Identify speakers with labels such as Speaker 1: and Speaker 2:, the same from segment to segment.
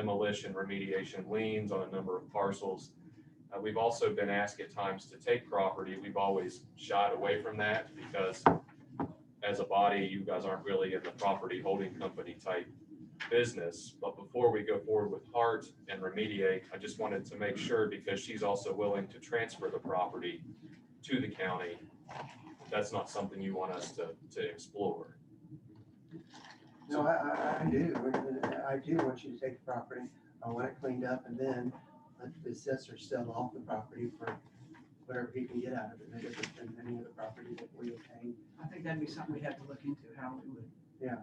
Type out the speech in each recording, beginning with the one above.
Speaker 1: demolition remediation liens on a number of parcels. Uh, We've also been asked at times to take property. We've always shied away from that because as a body, you guys aren't really in the property holding company type business. But before we go forward with Hart and remediate, I just wanted to make sure because she's also willing to transfer the property to the county. That's not something you want us to, to explore.
Speaker 2: No, I, I, I do, I do want you to take the property, I want it cleaned up and then let the assessor sell off the property for whatever he can get out of it, no different than any other property that we obtain.
Speaker 3: I think that'd be something we'd have to look into, how we would.
Speaker 2: Yeah.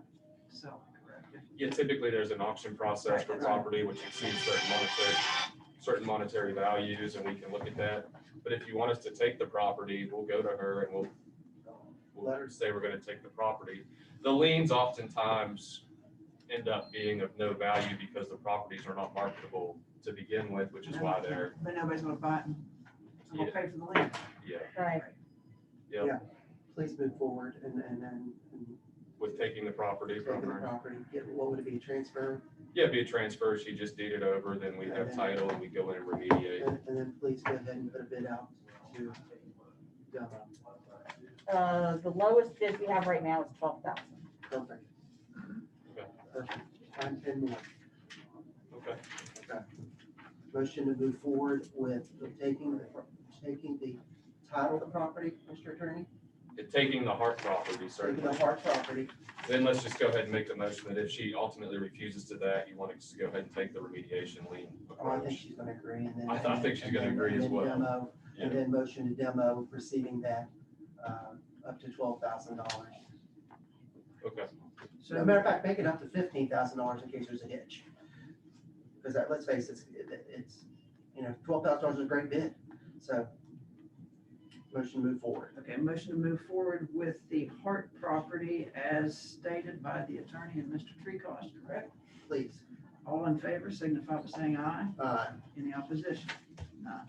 Speaker 3: sell it, correct? If-
Speaker 1: Yeah, typically there's an auction process for
Speaker 3: Right.
Speaker 1: property which exceeds certain monetary, certain monetary values and we can look at that. But if you want us to take the property, we'll go to her and we'll, we'll
Speaker 2: Letter.
Speaker 1: say we're gonna take the property. The liens oftentimes end up being of no value because the properties are not marketable to begin with, which is why they're,
Speaker 3: But nobody's gonna buy it, and I'm gonna pay for the land.
Speaker 1: yeah,
Speaker 4: Right.
Speaker 1: yeah,
Speaker 2: Please move forward and, and then, and
Speaker 1: with taking the property
Speaker 2: take the
Speaker 1: from her.
Speaker 2: property, get, what would it be, transfer?
Speaker 1: Yeah, it'd be a transfer, she just deeded over, then we have title and we go in and remediate.
Speaker 2: And, and then please go ahead and put a bid out to, uh,
Speaker 4: Uh, the lowest bid we have right now is twelve thousand.
Speaker 2: company.
Speaker 1: Okay.
Speaker 2: Perfect, find ten more.
Speaker 1: Okay,
Speaker 2: Motion to move forward with taking, the pro- taking the title of the property, Mr. Attorney?
Speaker 1: and taking the Hart property, certainly.
Speaker 2: Taking the Hart property,
Speaker 1: Then let's just go ahead and make the motion that if she ultimately refuses to that, you want us to go ahead and take the remediation lien
Speaker 2: oh, I think
Speaker 1: approach.
Speaker 2: she's gonna agree, and then.
Speaker 1: I thought- I think she's gonna
Speaker 2: and then-
Speaker 1: agree as
Speaker 2: and then
Speaker 1: well.
Speaker 2: demo,
Speaker 1: Yeah.
Speaker 2: And then motion to demo, receiving that, uh, up to twelve thousand dollars.
Speaker 1: Okay,
Speaker 2: So, a matter of fact, make it up to fifteen thousand dollars in case there's a hitch. Because that, let's face it, it- it's, you know, twelve thousand dollars is a great bid, so. Motion to move forward.
Speaker 3: Okay, motion to move forward with the Hart property as stated by the attorney and Mr. Treecost, correct?
Speaker 2: Please,
Speaker 3: All in favor, signify by saying aye.
Speaker 2: uh,
Speaker 3: Any opposition? None.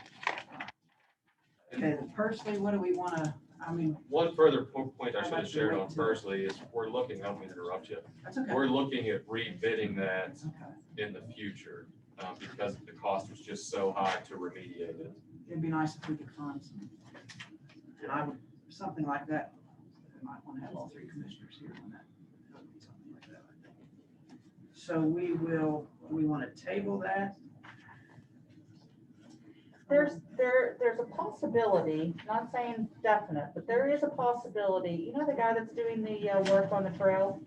Speaker 3: Okay, personally, what do we wanna, I mean,
Speaker 1: one further po- point I
Speaker 3: I'd
Speaker 1: should
Speaker 3: like
Speaker 1: have
Speaker 3: to
Speaker 1: shared
Speaker 3: wait
Speaker 1: on
Speaker 3: till-
Speaker 1: firstly is we're looking, I don't mean to interrupt you.
Speaker 3: that's okay.
Speaker 1: We're looking at rebidding that
Speaker 3: It's okay.
Speaker 1: in the future, um, because the cost was just so high to remediate it.
Speaker 3: It'd be nice if we could find some. And I would, something like that, we might want to have all three commissioners here on that. something like that. I think. So we will, we want to table that.
Speaker 4: There's, there, there's a possibility, not saying definite, but there is a possibility, you know, the guy that's doing the uh, work on the trail,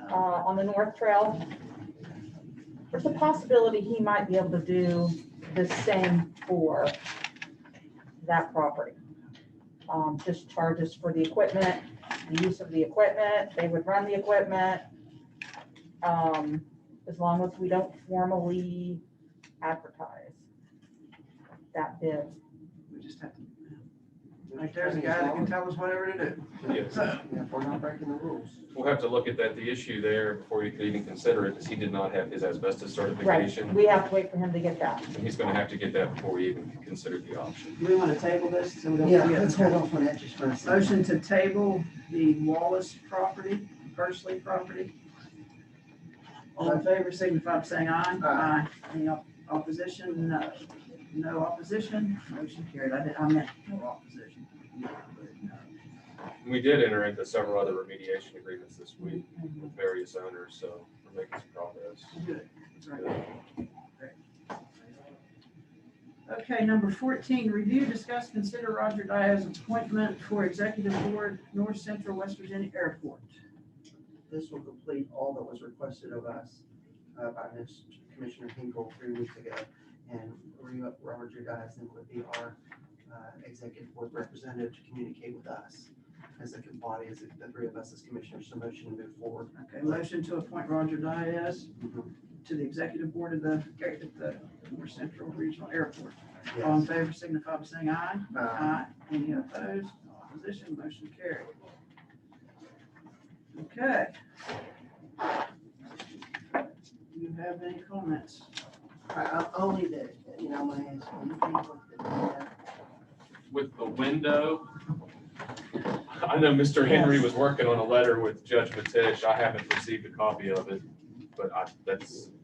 Speaker 4: uh,
Speaker 3: No,
Speaker 4: on the north trail? There's a possibility he might be able to do the same for that property. Um, just charges for the equipment, the use of the equipment, they would run the equipment. Um, as long as we don't formally advertise that bid.
Speaker 3: we just have to, like, there's a guy that can tell us whatever to do.
Speaker 1: Yes.
Speaker 3: So,
Speaker 2: Yeah, we're not breaking the rules.
Speaker 1: We'll have to look at that. The issue there before you could even consider it is he did not have his asbestos certification.
Speaker 4: We have to wait for him to get that.
Speaker 1: And he's gonna have to get that before we even consider the option.
Speaker 3: Do we want to table this? so we don't
Speaker 2: Yeah,
Speaker 3: forget?
Speaker 2: let's hold off on that just for a second.
Speaker 3: Motion to table the Wallace property, Pursley property. All in favor, signify by saying aye.
Speaker 2: Aye.
Speaker 3: Any op- opposition? No. No opposition? Motion carried. I did- I meant no opposition. No, but no.
Speaker 1: We did enter into several other remediation agreements this week with various owners, so we're making some progress.
Speaker 3: Good. That's right. Okay, number fourteen, review, discuss, consider Roger Dyer's appointment for executive board, North Central West Virginia Airport.
Speaker 2: This will complete all that was requested of us uh, by Ms. Commissioner Hinkle three weeks ago. And re- Robert Judison would be our uh, executive board representative to communicate with us as a body, as the three of us as commissioners, so motion to move forward.
Speaker 3: Okay, motion to appoint Roger Dias to the executive board of the, at the North Central Regional Airport. All in
Speaker 2: Yes.
Speaker 3: favor, signify by saying aye.
Speaker 2: Uh,
Speaker 3: Any opposed? No Opposition, motion carried. Okay. Do you have any comments?
Speaker 2: I- I- Only that, you know, my, you think of the-
Speaker 1: With the window, I know Mr. Henry was working on a letter with Judge Matish. I haven't received a copy of it, but I, that's